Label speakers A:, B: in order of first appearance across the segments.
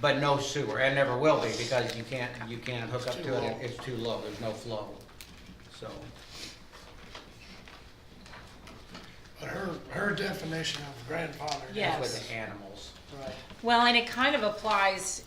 A: but no sewer, and never will be, because you can't, you can't hook up to it, it's too low, there's no flow, so.
B: But her, her definition of grandfather.
A: That's
C: Yeah.
A: with
C: Yes.
A: the animals.
B: Right.
C: Well, and it kind of applies,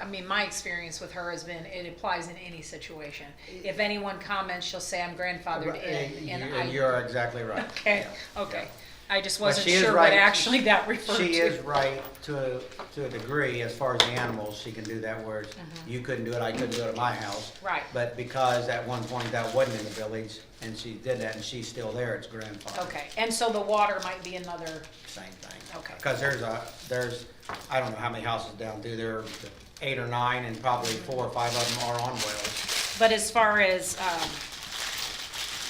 C: I mean, my experience with her has been, it applies in any situation. If anyone comments, she'll say I'm grandfathered in, and
A: You-
C: I,
A: You're exactly right.
C: okay,
A: Yeah,
C: okay.
A: yeah.
C: I just
A: But
C: wasn't
A: she is
C: sure
A: right.
C: what actually that referred to.
A: She is right to, to a degree, as far as the animals, she can do that, whereas you couldn't do it, I couldn't do it at my house.
C: Mm-hmm. Right.
A: But because at one point that wasn't in the village, and she did that, and she's still there, it's grandfathered.
C: Okay, and so the water might be another,
A: Same thing.
C: Okay.
A: Because there's a, there's, I don't know how many houses down through there, eight or nine, and probably four or five of them are on wells.
C: but as far as, um,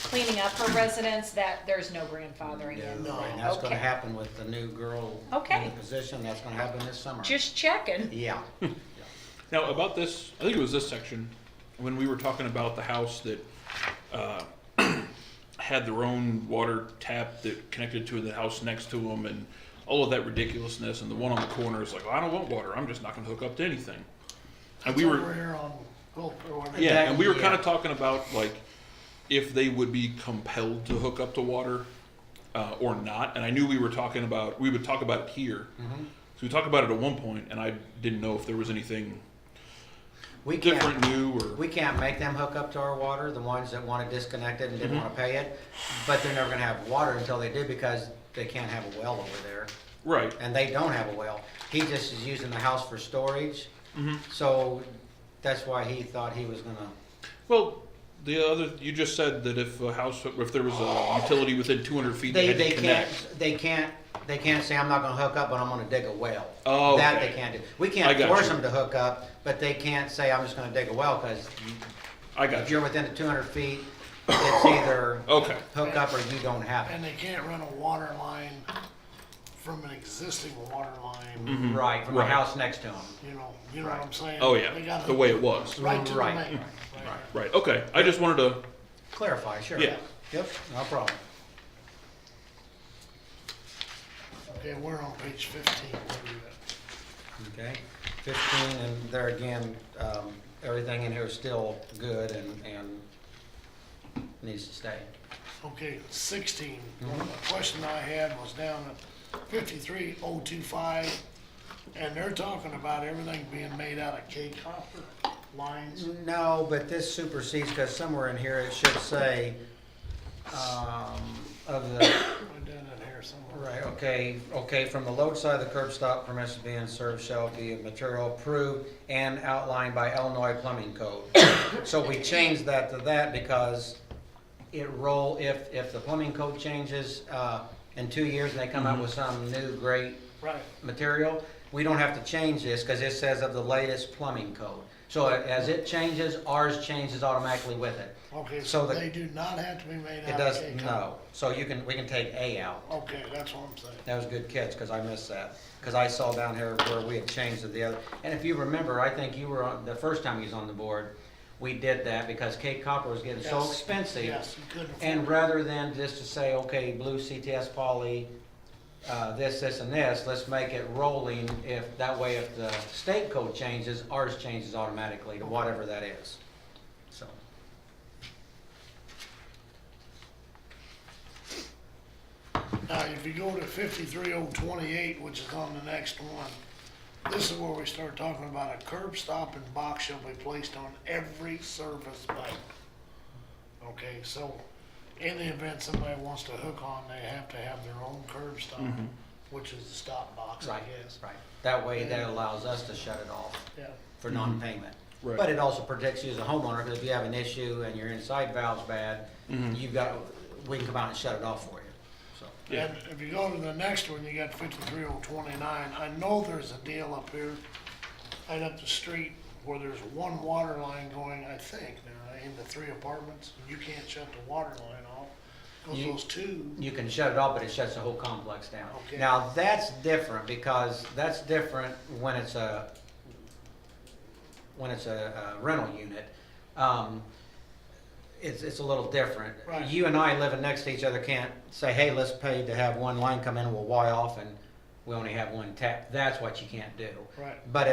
C: cleaning up her residence, that, there's no grandfathering
A: Yeah,
C: in.
B: No.
A: And that's gonna
C: Okay.
A: happen with the new girl in
C: Okay.
A: the position, that's gonna happen this summer.
C: Just checking.
A: Yeah.
D: Now about this, I think it was this section when we were talking about the house that uh, had their own water tap that connected to the house next to them, and all of that ridiculousness. And the one on the corner is like, well, I don't want water. I'm just not going to hook up to anything. And we
B: Over
D: were,
B: here on Gulf or whatever.
D: yeah, and we were
A: Yeah.
D: kind of talking about like if they would be compelled to hook up to water uh, or not. And I knew we were talking about we would talk about it here. So we talked about it at one point, and I didn't know if there was anything
A: We
D: different,
A: can't,
D: new, or
A: we can't make them hook up to our water, the ones that wanna disconnect it and didn't wanna pay it. But they're never gonna have water until they do because they can't have a well over there.
D: right.
A: And they don't have a well. He just is using the house for storage. So that's why he thought he was gonna
D: Well, the other you just said that if a house, if there was a utility within 200 feet,
A: They,
D: had to
A: they can't,
D: connect.
A: they can't, they can't say, I'm not gonna hook up, but I'm gonna dig a well.
D: Oh,
A: That
D: okay.
A: they can't do. We
D: I
A: can't
D: got
A: force
D: you.
A: them to hook up, but they can't say, I'm just gonna dig a well, cause
D: I
A: if
D: got you.
A: you're within the two hundred feet, it's either
D: Okay.
A: hook up or you don't have
B: And they can't run a water line from an existing water line,
A: it. Right, from the
D: Right.
A: house next to them.
B: you know, you know what I'm saying?
D: Mm-hmm. Oh
B: They
D: yeah,
B: gotta-
D: the way it was.
B: Right to the
A: Right.
B: main. line, right.
D: Right. Okay. I just wanted to.
A: Clarify, sure.
D: Yeah.
A: Yep, no problem.
B: Okay, we're on page fifteen. What do you got?
A: Okay, fifteen, and there again, um, everything in here is still good and, and needs to stay.
B: Okay, sixteen.
D: Mm-hmm.
B: The question I had was down at fifty-three oh two five, and they're talking about everything being made out of K copper lines.
D: Mm-hmm.
A: No, but this supersedes, because somewhere in here it should say, um, of the,
B: Put that in here somewhere.
A: right, okay, okay, from the load side of the curb stop, permission being served shall be of material approved and outlined by Illinois Plumbing Code. So we changed that to that because it roll, if, if the plumbing code changes, uh, in two years and they come out with some new great
B: Right.
A: material, we don't have to change this, because it says of the latest plumbing code. So as it changes, ours changes automatically with it.
B: Okay,
A: So
B: so
A: the-
B: they do not have to be made
A: It
B: out of
A: does,
B: K copper.
A: no, so you can, we can take A out.
B: Okay, that's what I'm saying.
A: That was a good catch, because I missed that, because I saw down here where we had changed to the other. And if you remember, I think you were on, the first time you was on the board, we did that because Cape Copper was getting so
B: Yes,
A: expensive.
B: Yes, you couldn't afford
A: And rather than just to say, okay, blue CTS poly, uh, this, this, and this, let's make it rolling if, that way if the state code changes, ours changes automatically to whatever that is. So,
B: Now, if you go to fifty-three oh twenty-eight, which is on the next one, this is where we start talking about a curb stop and box shall be placed on every service bike. Okay, so in the event somebody wants to hook on, they have to have their own curb stop, which is the stop box, I
A: Mm-hmm. right,
B: guess.
A: right. That way that allows us to shut it off
B: Yeah,
A: for non-payment.
D: Right.
A: But it also protects you as a homeowner, because if you have an issue and your inside valve's bad,
B: Mm-hmm.
A: you've got, we can come out and shut it off for you, so.
D: Yeah.
B: and if you go to the next one, you got fifty-three oh twenty-nine, I know there's a deal up here, right up the street, where there's one water line going, I think, now, into three apartments, and you can't shut the water line off, cause
A: You-
B: those two,
A: you can shut it off, but it shuts the whole complex down.
B: Okay.
A: Now, that's different because that's different when it's a, when it's a a rental unit. Um, It's, it's a little different.
B: Right.
A: You and I living next to each other can't say, hey, let's pay to have one line come in, we'll Y off and we only have one tap. That's what you can't do.
B: right?
A: But